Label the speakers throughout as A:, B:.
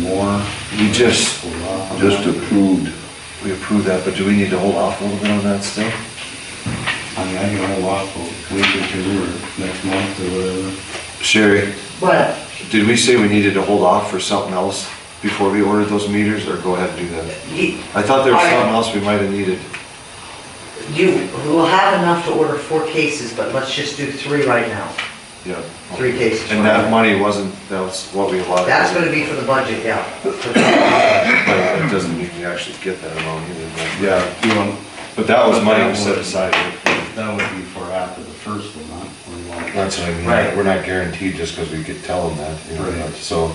A: more?
B: You just,
C: Just approved.
A: We approved that, but do we need to hold off a little bit on that still?
B: I mean, I can hold off a week or two or next month or whatever.
A: Sherry,
D: But
A: did we say we needed to hold off for something else before we ordered those meters, or go ahead and do that?
D: you,
A: I thought there was
D: I-
A: something else we might have needed.
D: you will have enough to order four cases, but let's just do three right now.
A: Yeah.
D: Three cases.
A: And that money wasn't, that was what we allotted.
D: That's gonna be for the budget, yeah.
A: But it doesn't mean we actually get that amount either, but. Yeah.
B: You want,
A: But that was money we set aside.
B: that would be for after the first one, huh? Or you want-
C: That's what I mean.
D: Right.
C: We're not guaranteed just because we could tell them that, you know,
B: Right.
C: so.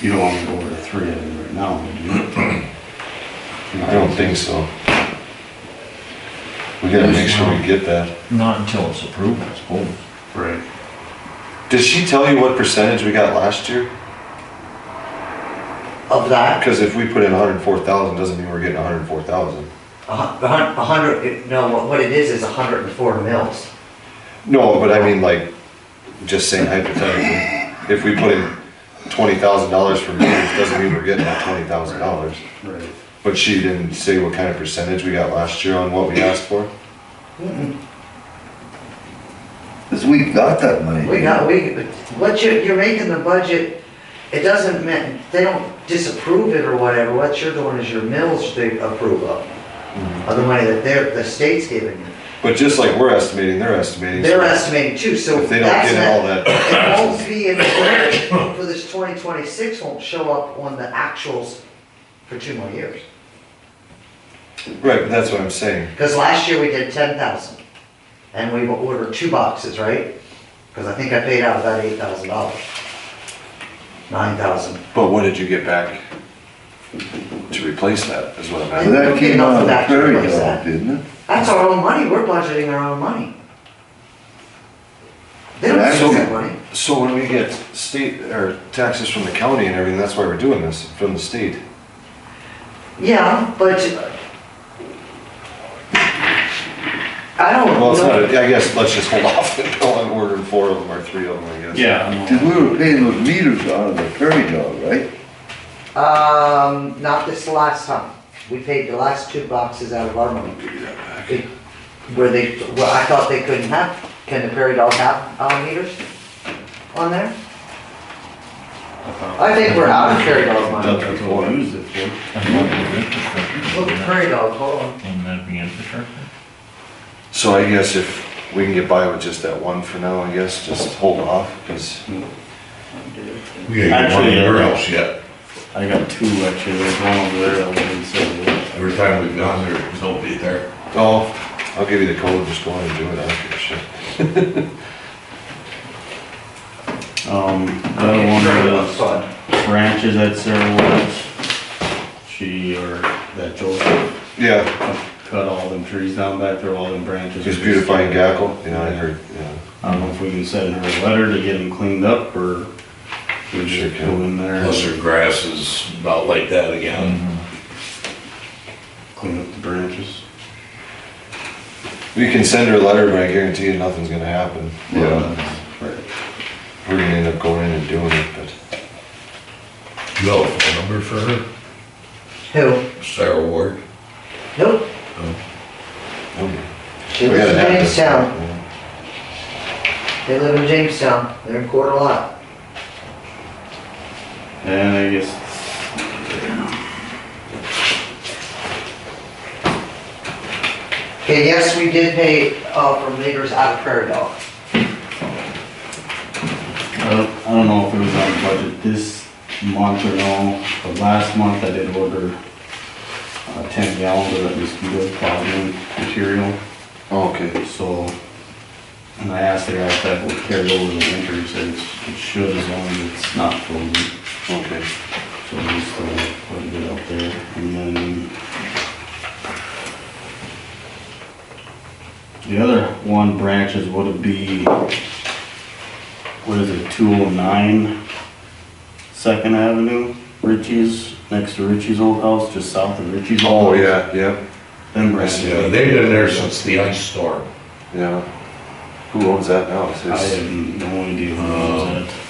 B: You don't want to go over the three of them right now, do you?
C: I don't think so. We gotta make sure we get that.
E: Not until it's approved, I suppose.
B: Right.
A: Did she tell you what percentage we got last year?
D: Of that,
C: Because if we put in hundred and four thousand, doesn't mean we're getting hundred and four thousand.
D: a hun- a hun- a hundred, no, what- what it is, is a hundred and four mils.
C: No, but I mean like, just saying hypothetically, if we put in twenty thousand dollars for meters, doesn't mean we're getting that twenty thousand dollars.
B: Right.
C: But she didn't say what kind of percentage we got last year on what we asked for?
F: Because we got that money.
D: We got, we, what you're, you're making the budget, it doesn't mean, they don't disapprove it or whatever, what you're doing is your mills they approve of. Of the money that they're, the state's giving you.
C: But just like we're estimating, they're estimating.
D: They're estimating too, so.
C: If they don't
D: that's
C: get
D: not-
C: all that-
D: It won't be in the budget for this twenty twenty-six, won't show up on the actuals for two more years.
C: Right, but that's what I'm saying.
D: Because last year we did ten thousand, and we ordered two boxes, right? Because I think I paid out about eight thousand dollars. Nine thousand.
A: But what did you get back to replace that, is what I'm
F: So
A: asking.
F: that came out of the
D: That's
F: prairie
D: what I
F: dog,
D: said.
F: didn't it?
D: That's our own money, we're budgeting our own money. They don't
F: That's
D: use
F: okay.
D: that money.
A: So when we get state, or taxes from the county and everything, that's why we're doing this, from the state.
D: Yeah, but. I don't know.
C: Well, it's not, I guess, let's just hold off until I'm ordering four of them or three of them, I guess.
B: Yeah. I'm all-
F: Because we were paying those meters out of the prairie dog, right?
D: Um, not this last time. We paid the last two boxes out of our money. It- Where they, well, I thought they couldn't have, can the Prairie Dog have, uh, meters on there? I think we're out of Prairie Dog money.
B: That's what we used it for.
E: And what would infrastructure
D: Look
E: be
D: at
E: then?
D: Prairie Dog, hold on.
E: Wouldn't that be infrastructure?
A: So I guess if we can get by with just that one for now, I guess, just hold off, because
G: We ain't got
B: Actually,
G: one anywhere
B: yeah.
G: else yet.
B: I got two actually, there's one over there, I wouldn't say that.
G: Every time we've gone there, there's nobody there.
C: Oh, I'll give you the code, just go on and do it, I don't give a shit.
B: Um, the other one was branches at Sarah Woods. She or that Joseph
C: Yeah,
B: cut all them trees down back there, all them branches.
C: just beautifying Gackle, you know, I heard, yeah.
B: I don't know if we can send her a letter to get them cleaned up or we
C: Sure
B: just
C: can.
B: go in there
G: Plus
B: and
G: their grass is about like that again.
B: clean up the branches.
C: We can send her a letter, but I guarantee you nothing's gonna happen.
F: Yeah.
B: Right.
C: We're gonna end up going in and doing it, but
G: You have a phone number for her?
D: Who?
G: Sarah Ward?
D: Nope.
C: um,
D: They
C: we
D: live
C: gotta
D: in
C: have this.
D: Jamestown. They live in Jamestown. They're in Coeur d'Alene.
B: And I guess
D: Okay, yes, we did pay, uh, for meters out of Prairie Dog.
B: I don't, I don't know if it was on budget this month or no, but last month I did order uh, ten gallons of that mosquito clogging material,
A: Okay.
B: so. And I asked her if that would carry over the winter, she said it's- it should as long as it's not frozen,
A: Okay.
B: so we still put it out there. And then the other one branches would be, what is it, two oh nine? Second Avenue, Richie's, next to Richie's old house, just south of Richie's
A: Oh,
B: old house.
A: yeah, yeah,
B: Them
G: Yeah,
B: branches.
G: they've been there since the ice storm.
A: yeah. Who owns that now? Is
B: I uh,
A: this- Uh,
B: have no idea who owns that.